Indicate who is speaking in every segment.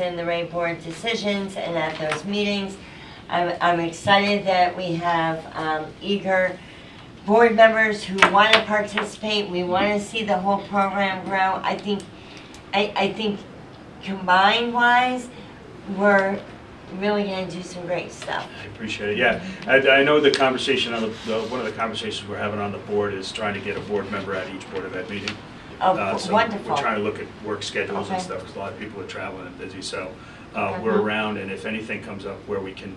Speaker 1: in the Ray Board decisions and at those meetings. I'm, I'm excited that we have um, eager board members who want to participate. We want to see the whole program grow. I think, I, I think combined wise, we're really going to do some great stuff.
Speaker 2: I appreciate it, yeah. I, I know the conversation on the, the, one of the conversations we're having on the board is trying to get a board member at each Board of Ed meeting. Uh,
Speaker 1: Oh,
Speaker 2: so We're trying to
Speaker 1: wonderful.
Speaker 2: look at work schedules and
Speaker 1: Okay.
Speaker 2: stuff, because a lot of people are traveling and busy, so, uh, we're
Speaker 1: Mhm.
Speaker 2: around, and if anything comes up where we can,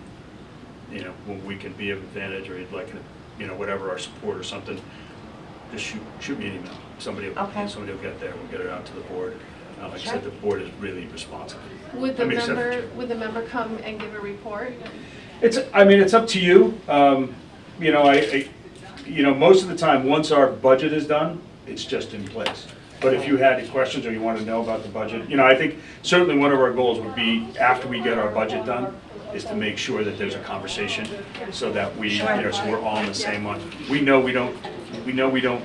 Speaker 2: you know, when we can be of advantage, or like, you know, whatever, our support or something, just shoot, shoot me an email. Somebody, will-
Speaker 1: Okay.
Speaker 2: somebody will get there, we'll get it out to the board. Uh, Like I said, the
Speaker 1: Sure.
Speaker 2: board is really responsive.
Speaker 3: Would the
Speaker 2: I mean, except for
Speaker 3: member,
Speaker 2: Jim.
Speaker 3: would the member come and give a report?
Speaker 2: It's, I mean, it's up to you. Um, You know, I, I- you know, most of the time, once our budget is done, it's just in place. But if you had any questions or you want to know about the budget, you know, I think certainly one of our goals would be, after we get our budget done, is to make sure that there's a conversation so that we, you know, so we're all on the same one. We know we don't, we know we don't,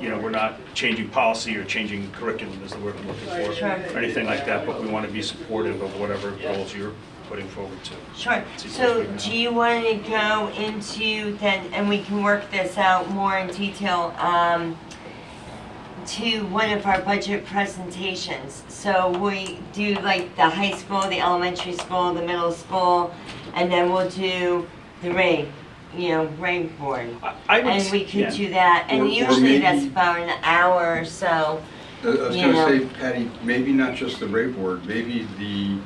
Speaker 2: you know, we're not changing policy or changing curriculum is the word I'm looking for,
Speaker 1: Sure.
Speaker 2: or anything like that, but we want to be supportive of whatever goals you're putting forward too.
Speaker 1: Sure. So do you want to go into then, and we can work this out more in detail, um, to one of our budget presentations? So we do like the high school, the elementary school, the middle school, and then we'll do the rate, you know, rank board.
Speaker 2: I- I would
Speaker 1: And
Speaker 2: s-
Speaker 1: we could
Speaker 2: yeah.
Speaker 1: do that,
Speaker 4: Or-
Speaker 1: and
Speaker 4: or
Speaker 1: usually that's
Speaker 4: maybe-
Speaker 1: about an hour or so.
Speaker 4: I was
Speaker 1: You know.
Speaker 4: gonna say, Patty, maybe not just the rate board, maybe the,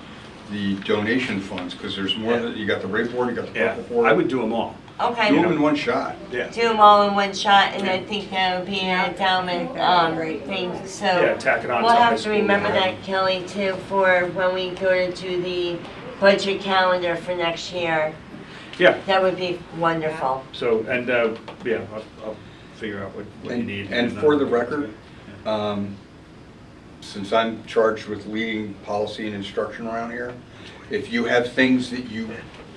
Speaker 4: the donation funds, because there's more,
Speaker 2: Yeah.
Speaker 4: than- you got the rate board, you got the
Speaker 2: Yeah,
Speaker 4: purple board.
Speaker 2: I would do them all.
Speaker 1: Okay.
Speaker 4: Do them in one shot.
Speaker 2: Yeah.
Speaker 1: do them all in one shot, and I think that would be an endowment um, thing, so.
Speaker 2: Yeah, tack it on to
Speaker 1: We'll
Speaker 2: high
Speaker 1: have to
Speaker 2: school.
Speaker 1: remember that, Kelly, too, for when we go to do the budget calendar for next year.
Speaker 2: Yeah,
Speaker 1: That would be wonderful.
Speaker 2: so, and, uh, yeah, I'll, I'll figure out what, what you
Speaker 4: And-
Speaker 2: need.
Speaker 4: And for the
Speaker 2: uh,
Speaker 4: record, um, since I'm charged with leading policy and instruction around here, if you have things that you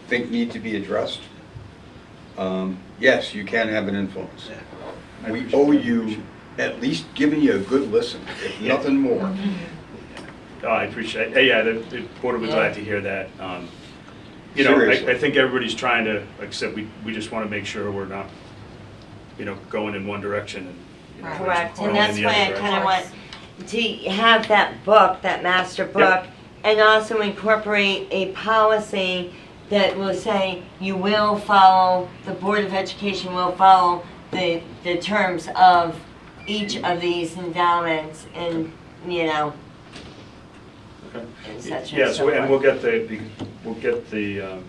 Speaker 4: think need to be addressed, um, yes, you can have an influence.
Speaker 2: Yeah. I
Speaker 4: We
Speaker 2: appreciate
Speaker 4: owe
Speaker 2: that.
Speaker 4: you at least giving you a good listen, if
Speaker 2: Yeah.
Speaker 4: nothing more.
Speaker 2: Oh, I appreciate, hey, yeah, the, the board would be glad to hear that. Um, You know,
Speaker 4: Seriously.
Speaker 2: I, I think everybody's trying to, like I said, we, we just want to make sure we're not, you know, going in one direction and. you know, we're just
Speaker 1: Correct,
Speaker 2: going
Speaker 1: and
Speaker 2: in
Speaker 1: that's
Speaker 2: the
Speaker 1: why I
Speaker 2: other
Speaker 1: kind of
Speaker 2: direction.
Speaker 1: want to have that book, that master book, and also incorporate a policy that will say you will follow, the Board of Education will follow the, the terms of each of these endowments and, you know,
Speaker 2: Okay.
Speaker 1: and such and
Speaker 2: Yes,
Speaker 1: so
Speaker 2: and we'll
Speaker 1: forth.
Speaker 2: get the, the- we'll get the um,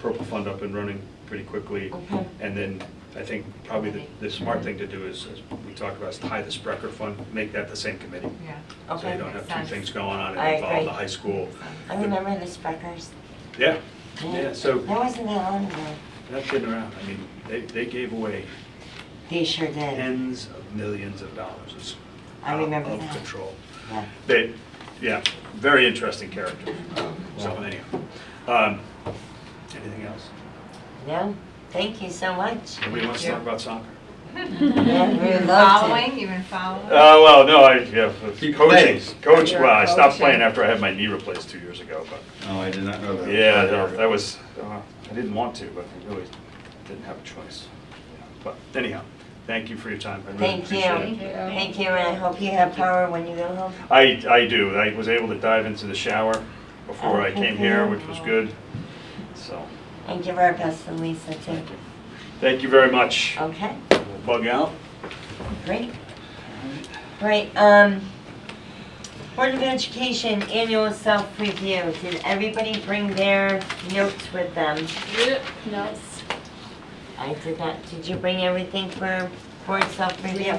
Speaker 2: purple fund up and running pretty quickly.
Speaker 1: Okay.
Speaker 2: And then I think probably the, the smart thing to do is, as we talked about, is tie the Sprecher Fund, make that the same committee.
Speaker 5: Yeah.
Speaker 2: So you
Speaker 1: Okay,
Speaker 2: don't have
Speaker 5: Sense.
Speaker 2: two things going on
Speaker 1: I
Speaker 2: and involve
Speaker 1: agree.
Speaker 2: the high school.
Speaker 1: I remember the Spreckers.
Speaker 2: Yeah, yeah, so
Speaker 1: That wasn't that long ago.
Speaker 2: that's been around. I mean, they, they gave away
Speaker 1: They sure did.
Speaker 2: tens of millions of dollars. It's
Speaker 1: I remember
Speaker 2: out Of
Speaker 1: that.
Speaker 2: control.
Speaker 1: Yeah.
Speaker 2: They, yeah, very interesting character.
Speaker 1: Mm-hmm.
Speaker 2: So anyhow, um, anything else?
Speaker 1: No, thank you so much.
Speaker 2: Nobody wants to talk about soccer?
Speaker 1: Yeah, we
Speaker 5: You've
Speaker 1: would
Speaker 5: been
Speaker 1: love to.
Speaker 5: following, you've been following.
Speaker 2: Uh, well, no, I, yeah, coaching,
Speaker 4: Keep playing.
Speaker 2: coach, well, I stopped
Speaker 5: Coaching.
Speaker 2: playing after I had my knee replaced two years ago, but,
Speaker 4: No, Oh, I did not know that.
Speaker 2: yeah, no, that was, uh, I didn't want to, but I really didn't have a choice. Yeah, But anyhow, thank you for your time, I really
Speaker 1: Thank you.
Speaker 2: appreciate it.
Speaker 1: Thank you, and I hope you have power when you go home.
Speaker 2: I, I do, I was able to dive into the shower before I came here,
Speaker 1: Okay.
Speaker 2: which was good, so,
Speaker 1: And give our best to Lisa, too.
Speaker 2: thank you. Thank you very much.
Speaker 1: Okay,
Speaker 2: We'll Bug out.
Speaker 1: great. Right, um, Board of Education Annual Self-Review. Did everybody bring their notes with them?
Speaker 3: No.
Speaker 1: I did not. Did you bring everything for board self-review?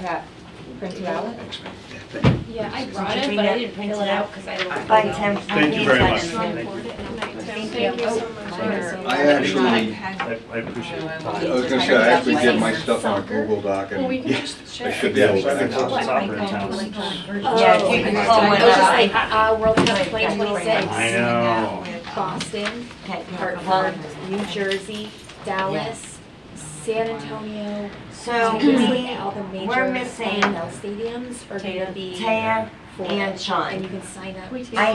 Speaker 2: Thanks, man.
Speaker 6: Yeah, I
Speaker 1: Did
Speaker 6: brought
Speaker 1: you
Speaker 6: it,
Speaker 1: bring
Speaker 6: but
Speaker 1: that-
Speaker 6: I didn't print it out because I don't.
Speaker 1: By Tim.
Speaker 2: Thank you very much.
Speaker 3: Thank you so much.
Speaker 4: I actually,
Speaker 2: I I appreciate
Speaker 1: Oh,
Speaker 2: it.
Speaker 4: I was gonna say, I actually did my stuff on a Google Doc and.
Speaker 3: Well, we can just
Speaker 4: I
Speaker 3: share.
Speaker 4: should be able to
Speaker 2: Yeah,
Speaker 4: access it.
Speaker 2: Soccer in town.
Speaker 1: Yeah, if you can pull
Speaker 6: I was
Speaker 1: one
Speaker 6: just
Speaker 1: up.
Speaker 6: like, uh, World Cup twenty
Speaker 2: I
Speaker 6: twenty-six,
Speaker 2: know.
Speaker 6: Boston,
Speaker 1: Okay,
Speaker 6: Hartford, New Jersey, Dallas, San Antonio.
Speaker 1: So
Speaker 6: Basically,
Speaker 1: we,
Speaker 6: all the major
Speaker 1: we're missing
Speaker 6: NFL stadiums are gonna be
Speaker 1: Taya
Speaker 6: full.
Speaker 1: and Sean.
Speaker 6: And you can sign up.
Speaker 1: I